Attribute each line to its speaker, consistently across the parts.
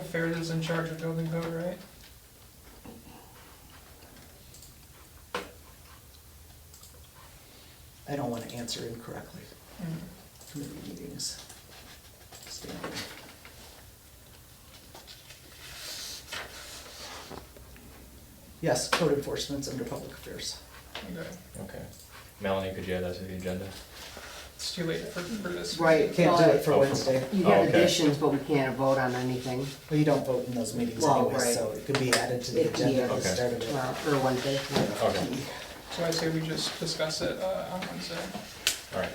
Speaker 1: Fair is in charge of building code, right?
Speaker 2: I don't wanna answer incorrectly.
Speaker 1: Mm,
Speaker 2: Committee meetings. Standard. Yes, code enforcement's under public affairs.
Speaker 1: Okay,
Speaker 3: Okay. Melanie, could you add that to the agenda?
Speaker 1: it's too late for, for this.
Speaker 2: Right, can't do it for
Speaker 3: Oh, for-
Speaker 2: Wednesday.
Speaker 4: You
Speaker 3: Oh,
Speaker 4: have
Speaker 3: okay.
Speaker 4: additions, but we can't vote on anything,
Speaker 2: Well, you don't vote in those meetings
Speaker 4: Well,
Speaker 2: anyway,
Speaker 4: right.
Speaker 2: so it could be added to the
Speaker 4: It-
Speaker 2: agenda at the
Speaker 3: Okay.
Speaker 2: start of it.
Speaker 4: well, or Wednesday.
Speaker 3: Okay,
Speaker 1: So I say we just discuss it, uh, on Wednesday.
Speaker 3: all right.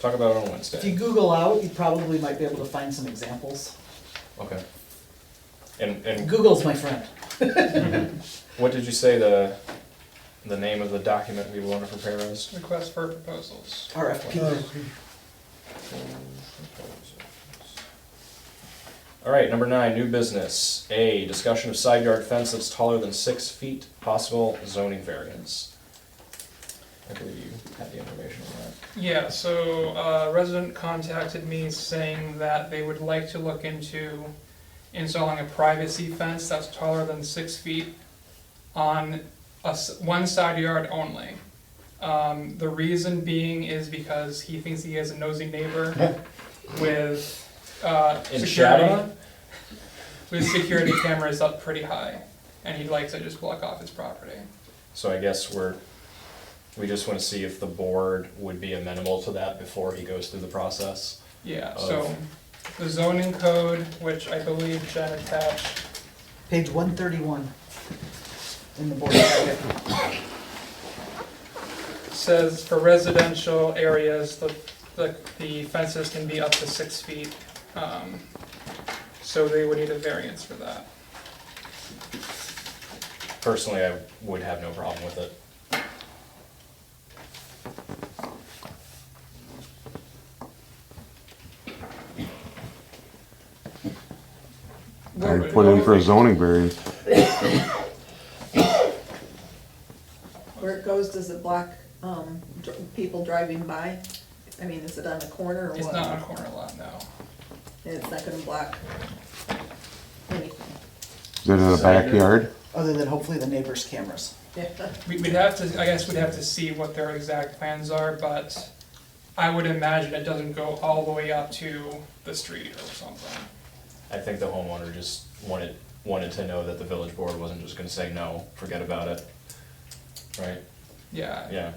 Speaker 3: Talk about it on
Speaker 2: If you
Speaker 3: Wednesday.
Speaker 2: Google out, you probably might be able to find some examples.
Speaker 3: Okay. And, and
Speaker 2: Google's my friend.
Speaker 3: what did you say the, the name of the document we want to prepare is?
Speaker 1: Request for proposals.
Speaker 2: RFP.
Speaker 4: Oh.
Speaker 3: All right, number nine, new business. A, discussion of side yard fence that's taller than six feet, possible zoning variance. I believe you had the information on that.
Speaker 1: Yeah, so, uh, resident contacted me saying that they would like to look into installing a privacy fence that's taller than six feet on a s one side yard only. Um, the reason being is because he thinks he has a nosy neighbor with, uh,
Speaker 3: In
Speaker 1: security,
Speaker 3: Shadow?
Speaker 1: with security cameras up pretty high, and he'd like to just block off his property.
Speaker 3: So I guess we're, we just want to see if the board would be amenable to that before he goes through the process.
Speaker 1: Yeah,
Speaker 3: of-
Speaker 1: so the zoning code, which I believe Jen attached,
Speaker 2: Page one thirty-one in the board packet.
Speaker 1: says for residential areas, the, the, the fences can be up to six feet. um, So they would need a variance for that.
Speaker 3: Personally, I would have no problem with it.
Speaker 5: I put in for a zoning variance.
Speaker 6: Where it goes, does it block, um, dr- people driving by? I mean, is it on the corner or what?
Speaker 1: It's not on a corner lot, no.
Speaker 6: And it's not gonna block anything?
Speaker 5: Is it in the backyard?
Speaker 2: Other than hopefully the neighbor's cameras.
Speaker 1: We- We'd have to, I guess we'd have to see what their exact plans are, but I would imagine it doesn't go all the way up to the street or something.
Speaker 3: I think the homeowner just wanted, wanted to know that the village board wasn't just gonna say no, forget about it. Right,
Speaker 1: Yeah,
Speaker 3: yeah.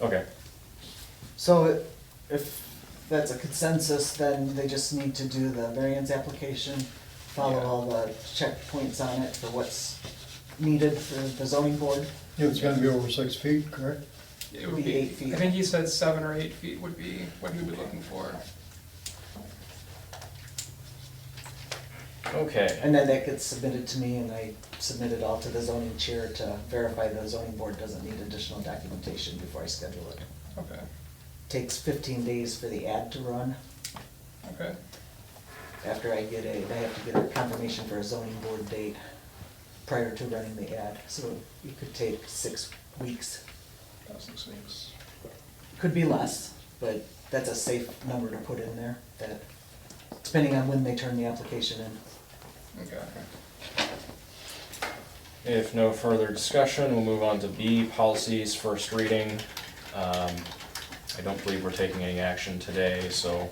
Speaker 3: Okay,
Speaker 2: So it- if that's a consensus, then they just need to do the variance application, follow all the checkpoints on it for what's needed for the zoning board.
Speaker 7: It's gonna be over six feet, correct?
Speaker 1: it would
Speaker 2: Be
Speaker 1: be,
Speaker 2: eight feet.
Speaker 1: I think he said seven or eight feet would be what he would be looking for.
Speaker 3: okay,
Speaker 2: And then that gets submitted to me and I submit it all to the zoning chair to verify the zoning board doesn't need additional documentation before I schedule it.
Speaker 1: Okay,
Speaker 2: Takes fifteen days for the ad to run.
Speaker 1: okay.
Speaker 2: After I get a, I have to get a confirmation for a zoning board date prior to running the ad. So it could take six weeks
Speaker 1: Thousand six.
Speaker 2: Could be less, but that's a safe number to put in there, that, depending on when they turn the application in.
Speaker 1: Okay.
Speaker 3: if no further discussion, we'll move on to B, policies, first reading. Um, I don't believe we're taking any action today, so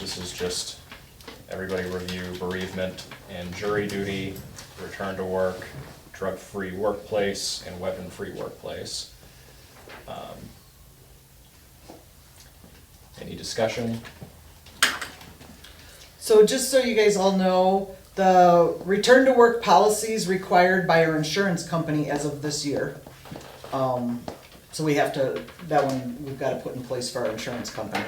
Speaker 3: this is just everybody review bereavement and jury duty, return to work, drug-free workplace, and weapon-free workplace. Um, Any discussion?
Speaker 2: So just so you guys all know, the return to work policy is required by our insurance company as of this year. Um, so we have to, that one, we've gotta put in place for our insurance company.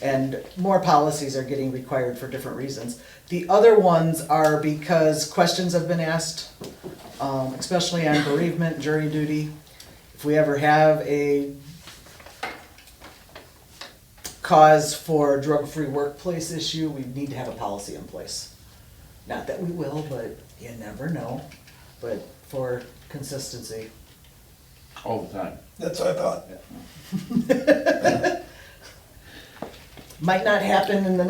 Speaker 2: And more policies are getting required for different reasons. The other ones are because questions have been asked, um, especially on bereavement, jury duty. If we ever have a cause for drug-free workplace issue, we need to have a policy in place. Not that we will, but you never know, but for consistency.
Speaker 8: All the time.
Speaker 7: That's what I thought.
Speaker 2: Might not happen in the